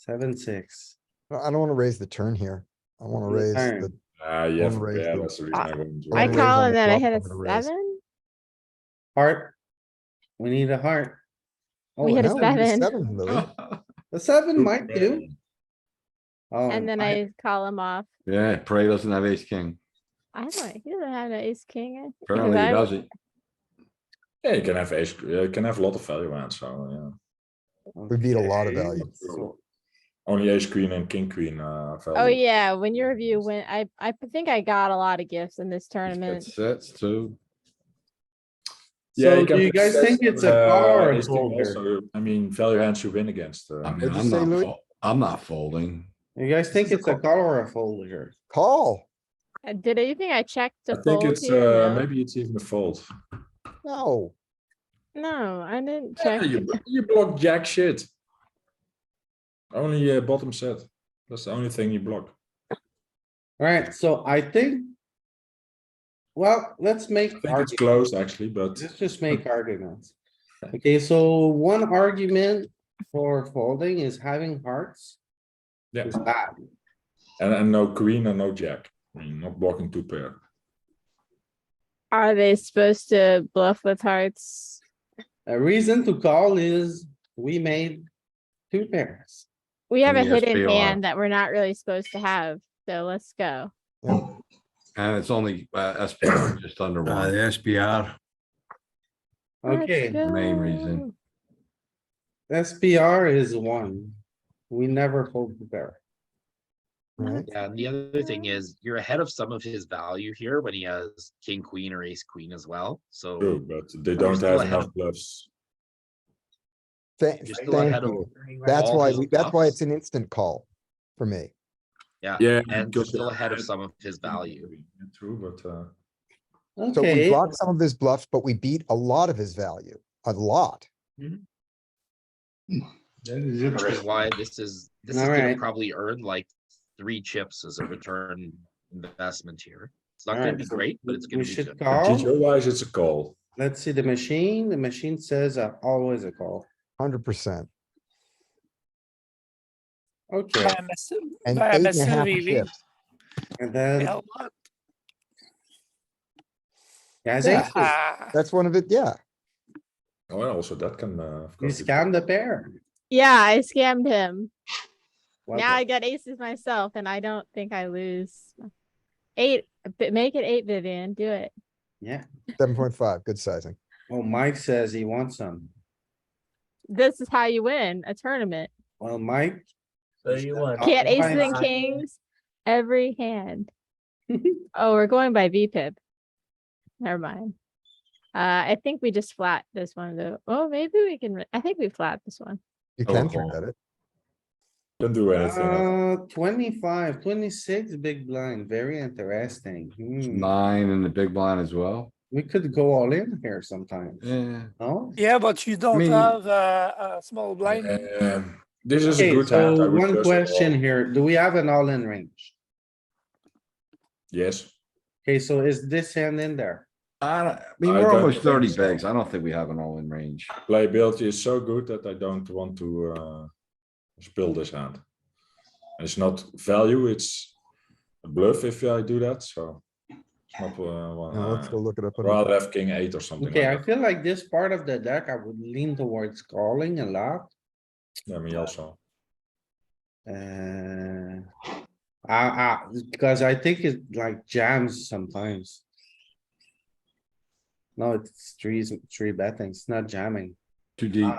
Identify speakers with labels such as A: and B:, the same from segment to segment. A: seven, six.
B: I I don't wanna raise the turn here. I wanna
A: The
B: raise
A: turn.
B: the,
C: Ah, yeah,
B: One raise,
C: yeah,
B: but-
C: that's the reason I wouldn't do
B: I
D: Ah, I
C: it.
B: raise on
D: call and
B: the
D: then I
B: flop, I'm
D: hit a
B: gonna raise.
D: seven.
A: Heart. We need a heart. Oh,
D: We hit a
B: no, you
D: seven.
B: seven, Louis.
A: The seven might do. Oh,
D: And then I call him off.
C: Yeah, Prey doesn't have ace king.
D: I don't, he doesn't have an ace king. I-
C: Apparently
D: because
C: he
D: I-
C: doesn't.
E: Yeah, you can have ace, yeah, you can have a lot of value hands, so yeah.
B: We beat a lot of
A: okay,
B: value.
A: so-
E: Only ace queen and king queen, uh, value.
D: Oh, yeah, when your review went, I, I think I got a lot of gifts in this tournament.
C: That's sets too.
E: Yeah,
A: So
E: can
A: do you guys
E: bet,
A: think it's a
E: uh,
A: call or a Ah,
E: ace king
A: fold here?
E: also, I mean, value hands you win against, uh,
C: I mean,
B: What'd you
C: I'm
B: say,
C: not,
B: Louis?
C: fol- I'm not folding.
A: You guys think it's a call or a fold here?
B: Call.
D: Uh, Did you think I checked
E: I
D: to
E: think
D: fold
E: it's,
D: here?
E: uh,
D: No.
E: maybe it's even a fold.
B: No,
D: No, I didn't
E: Yeah,
D: check.
E: you, bl- you block jack shit. Only uh, bottom set, that's the only thing you block.
A: Alright, so I think. Well, let's make.
E: I think it's
A: argu-
E: close actually, but
A: Let's just make arguments. Okay, so one argument for folding is having hearts
E: yeah,
A: is bad.
E: and, and no queen and no jack, I mean, not blocking two pair.
D: Are they supposed to bluff with hearts?
A: A reason to call is we made two pairs.
D: We have a
C: And yes, they
D: hidden
C: are.
D: hand that we're not really supposed to have, so let's go.
C: And it's only, uh, SPR just under
F: Uh, the
C: one.
F: SPR,
D: Let's
A: Okay,
C: Main
D: go.
C: reason.
A: SPR is one. We never fold the pair.
B: right?
G: Yeah, and the other thing is you're ahead of some of his value here when he has king, queen, or ace, queen as well. So
E: True, but they
G: We're
E: don't
G: still
E: have
G: ahead of-
E: enough bluffs.
B: Tha-
G: you're
B: Thank
G: still ahead of.
B: you. That's
G: all
B: why,
G: his
B: we- that's why
G: bluffs.
B: it's an instant call for me.
E: Yeah.
G: And you're
E: because
G: still
E: they're
G: ahead of some of his value.
E: True, but, uh,
B: So we
A: Okay,
B: blocked some of his bluffs, but we beat a lot of his value, a lot.
G: Which is why this is, this is gonna
A: Alright.
G: probably earn like three chips as a return investment here. It's not gonna
A: Alright,
G: be
A: so
G: great, but it's
A: we
G: gonna be
A: should
G: good.
A: call.
E: GTO wise, it's a call.
A: Let's see the machine. The machine says uh, always a call.
B: Hundred percent.
A: Okay,
H: By myself,
B: And
H: by
B: eight and a
H: myself,
B: half
H: we win.
B: chips.
A: and then,
H: Yeah, what?
A: guys,
B: Yeah.
A: aces.
H: Ah,
B: That's one of it, yeah.
E: Oh, and also that can, uh, of
A: you
E: course. be-
A: scam the pair.
D: Yeah, I scammed him.
A: What
D: Now
A: the-
D: I got aces myself and I don't think I lose. Eight, but make it eight, Vivian, do it.
A: Yeah,
B: Seven point five, good sizing.
A: well, Mike says he wants some.
D: This is how you win a tournament.
A: Well, Mike.
I: So you
A: Uh,
C: Oh,
I: want
D: Can't aces
A: Fine.
D: and kings, every hand. Oh, we're going by VPIP. Never mind. Uh, I think we just flat this one though. Oh, maybe we can, re- I think we flat this one.
B: You
C: Oh,
B: can
C: call.
B: forget it.
E: Can do anything. Um, I think.
A: Uh, 25, 26, big blind, very interesting. Hmm.
C: Nine in the big blind as well.
A: We could go all in here sometimes,
C: Yeah.
A: no?
H: Yeah, but you don't
C: mean-
H: have uh, a small blind.
E: Um, This is a
A: Okay,
E: good hand. I
A: so
E: would
A: one
E: just call.
A: question here, do we have an all-in range?
E: Yes,
A: Okay, so is this hand in there?
C: I, don't- I mean,
E: I
C: we're
E: don't
C: almost
E: think
C: thirty
E: so.
C: bigs. I don't think we have an all in range.
E: playability is so good that I don't want to, uh, spill this hand. And it's not value, it's a bluff if I do that, so. it's Not, uh, one,
B: Now let's go
E: uh,
B: look it up. on the-
E: rather have king eight or something like
A: Okay, I
E: that.
A: feel like this part of the deck, I would lean towards calling a lot.
E: Yeah, me also.
A: Uh, I, I, because I think it like jams sometimes. No, it's trees, three betting, it's not jamming,
C: Too deep.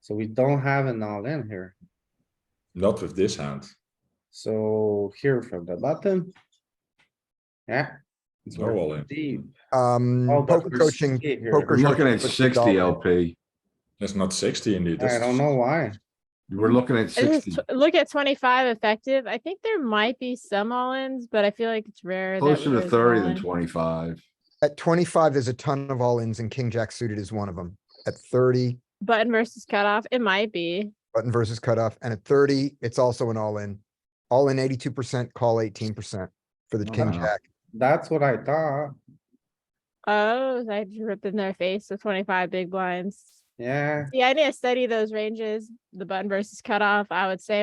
A: so we don't have an all in here.
E: Not with this hand.
A: So here from the bottom. Yeah. it's
E: No all in.
A: Deep.
B: Um,
A: Oh, but
B: poker
A: we're
B: coaching,
A: sticky here.
B: poker
C: We're looking at
B: Put the
C: sixty
B: dollar.
C: LP.
E: It's not sixty indeed.
A: I
E: that's-
A: don't know why.
C: We're looking at
D: It is
C: sixty.
D: tw- Look at twenty-five effective. I think there might be some all-ins, but I feel like it's rare. that
C: Closer to
D: there's
C: thirty
D: all-in.
C: than twenty-five.
B: at twenty-five, there's a ton of all-ins and king jack suited is one of them. At thirty,
D: Button versus cutoff, it might be.
B: button versus cutoff, and at thirty, it's also an all-in. All in eighty-two percent, call eighteen percent for the king
C: Wow.
B: jack.
A: That's what I thought.
D: Oh, I just ripped in their face with twenty-five big blinds.
A: yeah.
D: Yeah, I need to study those ranges, the button versus cutoff. I would say